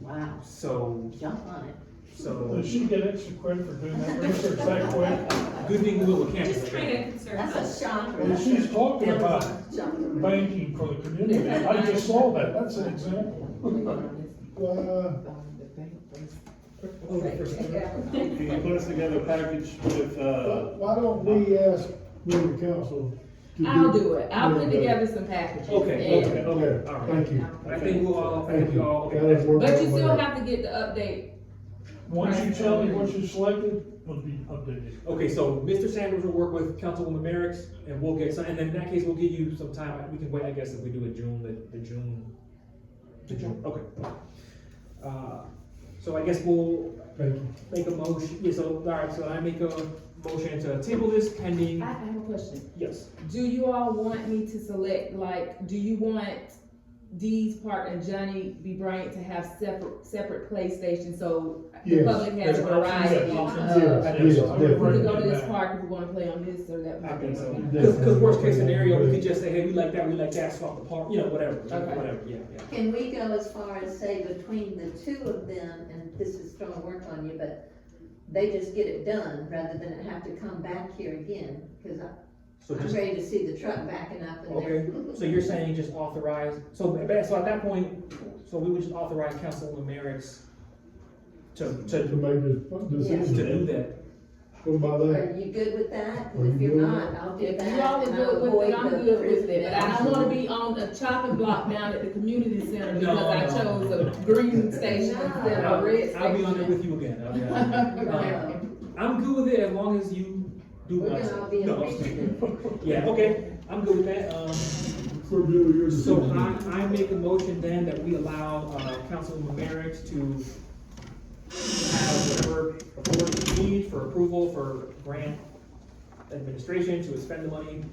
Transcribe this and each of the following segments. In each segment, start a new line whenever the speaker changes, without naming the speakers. Wow,
So,
jump on it.
so
Does she get extra credit for doing that research that quick?
Gooding Wheeler Campus.
Just trying to concern
That's
us.
a shocker.
Well, she's talking
That was
about
a shocker.
Banking for the community, I just saw that, that's an example. Uh,
Can you put us together a package with, uh,
Why don't we ask member council? to
I'll do it, I'll put
Yeah.
together some packages.
Okay,
and-
okay, okay, all right.
Thank you.
I think we'll all, I think
Thank
we
you.
all, okay,
That is
that's-
worth
But you
my
still
while.
have to get the update,
Once you tell me what you selected, it'll be updated.
okay, so Mr. Sanders will work with Councilwoman Merrick's, and we'll get some, and then in that case, we'll give you some time, we can wait, I guess, if we do it June, the, the June. The June, okay. Uh, so I guess we'll
Thank you.
make a motion, yeah, so, all right, so I make a motion to table this pending,
I I have a question,
yes,
do you all want me to select, like, do you want Dee's Park and Johnny B. Bryant to have separate, separate PlayStation, so the
Yes,
public has a
there's options,
variety
yeah,
of,
Yes, yes,
we're gonna go to
definitely.
this park, if we're gonna play on this or that.
I
park.
think so.
Okay.
Cause, 'cause worst case scenario, we could just say, hey, we like that, we like that, swap the part, you know, whatever,
Okay.
whatever, yeah, yeah.
Can we go as far as say between the two of them, and this is gonna work on you, but they just get it done rather than it have to come back here again? Cause I-
So
I'm
just,
ready to see the truck backing up and they're.
so you're saying just authorize, so, so at that point, so we would just authorize Councilwoman Merrick's to, to,
To make this
to do
decision,
that,
go by that.
Are you good with that?
Are you
If you're
good?
not, I'll do
If
that.
you all are
and I'll
good with it, I'm
avoid the
good with it,
prison
but I don't wanna be on a chopping block down at the community center because I
No, no,
chose
no.
a green station instead of
I'll,
a red station.
I'll be on there with you again, I'll be on there.
No.
I'm good with it as long as you do
We're
what I
gonna
say.
all be in
No, I'm
agreement.
kidding. Yeah, okay, I'm good with that, um,
So do your
so
decision.
I, I make a motion then that we allow, uh, Councilwoman Merrick's to have whatever authority she needs for approval for grant administration to spend the money,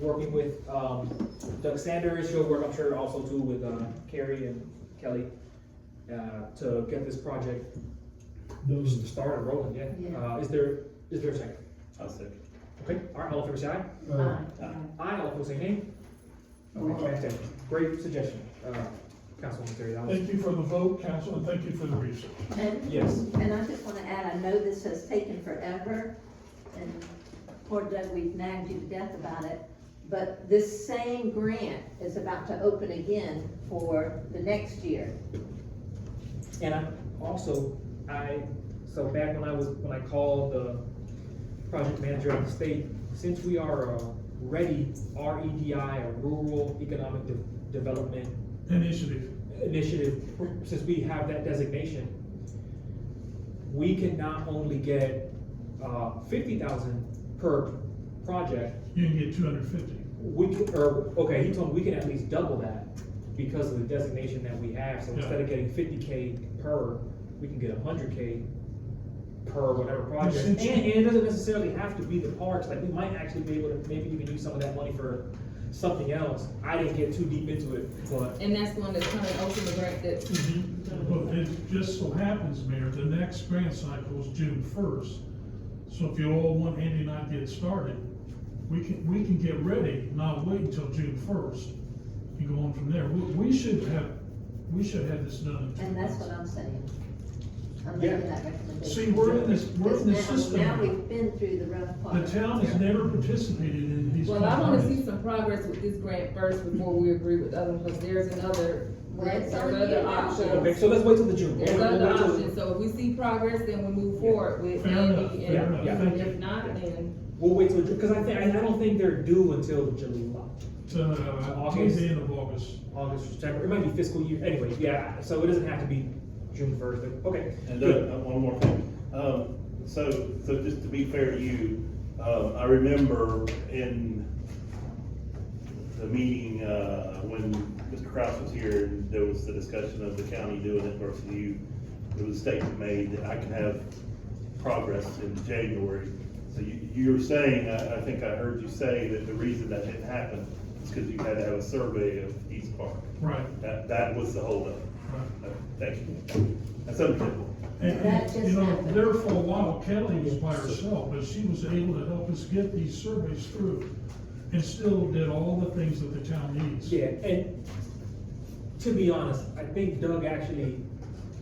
working with, um, Doug Sanders, she'll work, I'm sure, also too with, uh, Carrie and Kelly, uh, to get this project
Those-
started rolling, yeah.
Yeah.
Uh, is there, is there a second?
I'll second.
Okay, all right, all in favor, say aye.
uh,
Aye, all opposed, say nay. Okay, fantastic. Great suggestion, uh, Councilwoman Terry, that was,
Thank you for the vote, council, and thank you for the research.
And,
yes.
and I just wanna add, I know this has taken forever, and poor Doug, we've nagged you to death about it, but this same grant is about to open again for the next year.
And I, also, I, so back when I was, when I called the project manager of the state, since we are, uh, ready, R E D I, a rural economic de- development
Initiative.
initiative, since we have that designation, we can not only get, uh, fifty thousand per project,
You can get two hundred fifty.
We can, or, okay, he told me we can at least double that because of the designation that we have, so
Yeah.
instead of getting fifty K per, we can get hundred K per whatever project, and,
since you-
and it doesn't necessarily have to be the parks, like, we might actually be able to maybe even use some of that money for something else, I didn't get too deep into it, but.
And that's one that's coming open the grant that,
Mm-hmm. But it just so happens, Mayor, the next grant cycle is June first. So if you all want Andy and I to get started, we can, we can get ready, not wait until June first. You go on from there. We, we should have, we should have this done. in two
And that's what I'm
months.
saying. I'm
Yeah.
making that recommendation.
See, we're in this, we're
Because
in this
now- Now
system.
we've been through the rough
The
part.
town has never participated in these.
well, I wanna see
companies.
some progress with this grant first before we agree with other, because there's another, there's
That's on
other
you.
Okay,
options.
so let's wait till the June.
There's other options, so if we see progress, then we move forward with
Fair enough,
Andy
fair
and,
enough.
yeah.
and
Thank
if
you.
not, then,
We'll wait till, because I think, I don't think they're due until July,
Uh, till
August.
the end of August.
August, September, it might be fiscal year, anyway, yeah, so it doesn't have to be June first, okay.
And
good.
uh, one more thing, um, so, so just to be fair to you, um, I remember in the meeting, uh, when Mr. Kraus was here, there was the discussion of the county doing it versus you. There was a statement made that I can have progress in January. So you, you were saying, I, I think I heard you say that the reason that didn't happen is because you had to have a survey of East Park.
Right,
That, that was the holdup.
right.
Uh, Thank you. That's understandable.
And,
That
and, you
just
know,
happened.
there for a while, Kelly was by herself, but she was able to help us get these surveys through and still did all the things that the town needs.
Yeah, and to be honest, I think Doug actually